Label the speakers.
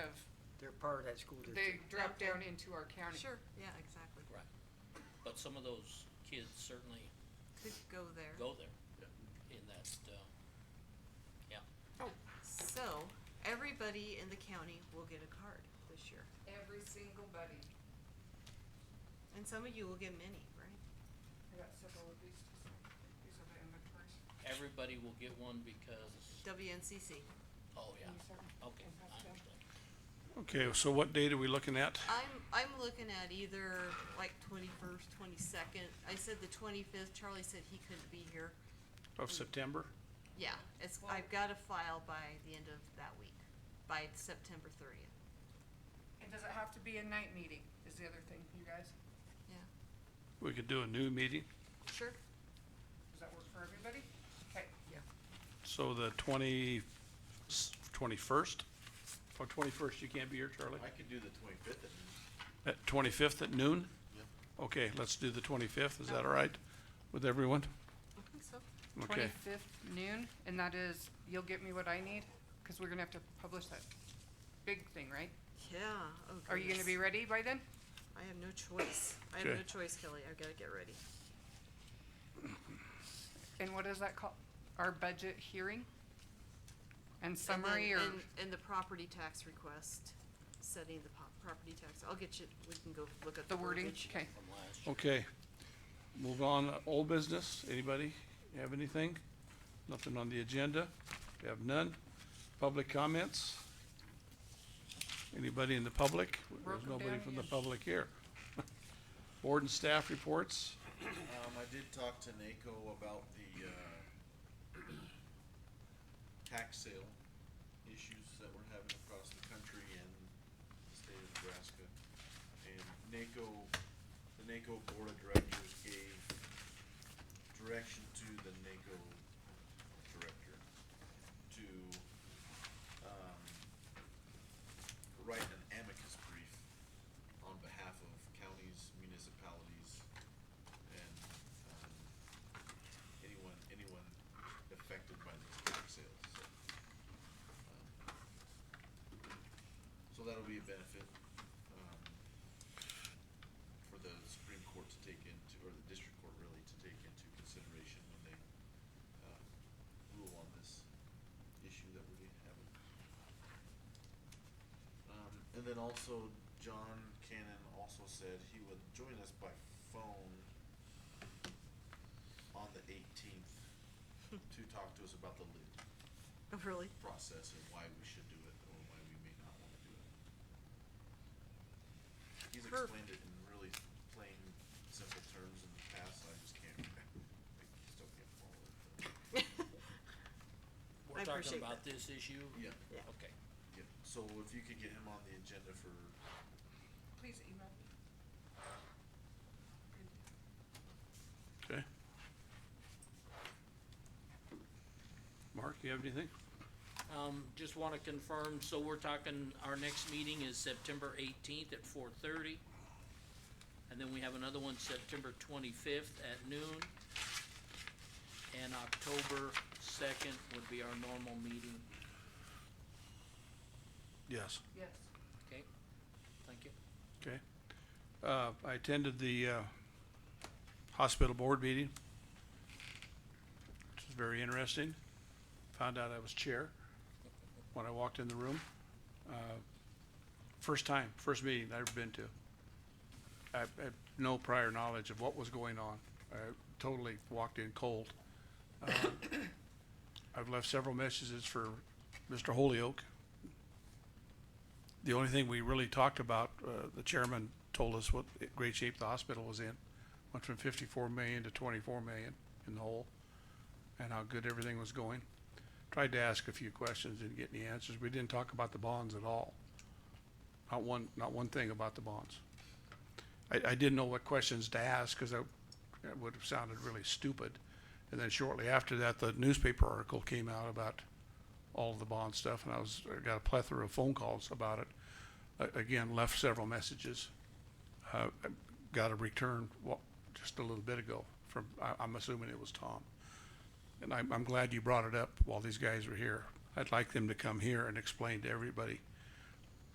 Speaker 1: part of that school
Speaker 2: They
Speaker 1: district.
Speaker 2: drop down into our county.
Speaker 3: Sure, yeah, exactly.
Speaker 4: Right. But some of those kids certainly
Speaker 3: Could go there.
Speaker 4: go there in that, uh, yeah.
Speaker 3: So, everybody in the county will get a card this year.
Speaker 2: Every single buddy.
Speaker 3: And some of you will get many, right?
Speaker 2: I got several of these, to sign. these are the inventories.
Speaker 4: Everybody will get one because,
Speaker 3: WNCC.
Speaker 4: oh, yeah,
Speaker 2: Can you sign?
Speaker 4: okay,
Speaker 2: And
Speaker 4: I
Speaker 2: pass them?
Speaker 4: understand.
Speaker 5: Okay, so what date are we looking at?
Speaker 3: I'm, I'm looking at either like twenty-first, twenty-second. I said the twenty-fifth. Charlie said he couldn't be here.
Speaker 5: Of September?
Speaker 3: Yeah, it's, I've got a file by the end of that week, by September thirtieth.
Speaker 2: And does it have to be a night meeting is the other thing, you guys?
Speaker 3: Yeah,
Speaker 5: We could do a new meeting,
Speaker 3: sure.
Speaker 2: Does that work for everybody? Okay, yeah.
Speaker 5: so the twenty, twenty-first? Or twenty-first, you can't be here, Charlie?
Speaker 6: I could do the twenty-fifth at noon.
Speaker 5: At twenty-fifth at noon? Okay, let's do the twenty-fifth, is that all right with everyone?
Speaker 3: I think so.
Speaker 5: Okay,
Speaker 2: Twenty-fifth noon, and that is, you'll get me what I need, cause we're gonna have to publish that big thing, right?
Speaker 3: Yeah, oh
Speaker 2: Are you gonna
Speaker 3: goodness.
Speaker 2: be ready by then?
Speaker 3: I have no choice. I have no
Speaker 5: Okay.
Speaker 3: choice, Kelly. I've gotta get ready.
Speaker 2: And what is that called? Our budget hearing? And
Speaker 3: And then-
Speaker 2: summary or,
Speaker 3: And, and the property tax request, setting the po- property tax. I'll get you, we can go look at
Speaker 2: the
Speaker 3: the
Speaker 2: wording,
Speaker 3: verbiage.
Speaker 2: okay.
Speaker 4: From last year.
Speaker 5: okay. Move on, uh, old business, anybody have anything? Nothing on the agenda? We have none. Public comments? Anybody in the public? There's
Speaker 2: Broken
Speaker 5: nobody
Speaker 2: down
Speaker 5: from the
Speaker 2: again.
Speaker 5: public here. Board and staff reports?
Speaker 6: Um, I did talk to NACO about the, uh, tax sale issues that we're having across the country and the state of Nebraska. And NACO, the NACO Board of Directors gave direction to the NACO Director to, um, write an amicus brief on behalf of counties, municipalities, and um, anyone, anyone affected by these tax sales. So, um, So that'll be a benefit um, for the Supreme Court to take into, or the district court really, to take into consideration when they uh, rule on this issue that we have. Um, and then also, John Cannon also said he would join us by phone on the eighteenth to talk to us about the lid
Speaker 3: Oh, really?
Speaker 6: process and why we should do it or why we may not wanna do it. He's
Speaker 3: Perf-
Speaker 6: explained it in really plain, simple terms in the past, I just can't, I still can't follow it. but-
Speaker 4: We're
Speaker 3: appreciate
Speaker 4: talking about
Speaker 3: that.
Speaker 4: this issue?
Speaker 6: Yeah,
Speaker 3: Yeah.
Speaker 4: Okay,
Speaker 6: yeah, so if you could get him on the agenda for,
Speaker 2: Please email me.
Speaker 5: Okay. Mark, you have anything?
Speaker 4: um, just wanna confirm, so we're talking, our next meeting is September eighteenth at four thirty. And then we have another one September twenty-fifth at noon. And October second would be our normal meeting,
Speaker 5: Yes.
Speaker 2: Yes.
Speaker 4: okay? Thank you.
Speaker 5: Okay. Uh, I attended the, uh, hospital board meeting. Which was very interesting. Found out I was chair when I walked in the room. Uh, First time, first meeting I've ever been to. I I had no prior knowledge of what was going on. I totally walked in cold. Uh, I've left several messages for Mr. Holyoke, the only thing we really talked about, uh, the chairman told us what great shape the hospital was in. Went from fifty-four million to twenty-four million in the hole, and how good everything was going. Tried to ask a few questions, didn't get any answers. We didn't talk about the bonds at all. Not one, not one thing about the bonds. I, I didn't know what questions to ask, cause that, that would have sounded really stupid. And then shortly after that, the newspaper article came out about all of the bond stuff, and I was, I got a plethora of phone calls about it. A- Again, left several messages. Uh, I got a return, wa- just a little bit ago from, I, I'm assuming it was Tom. And I'm, I'm glad you brought it up while these guys were here. I'd like them to come here and explain to everybody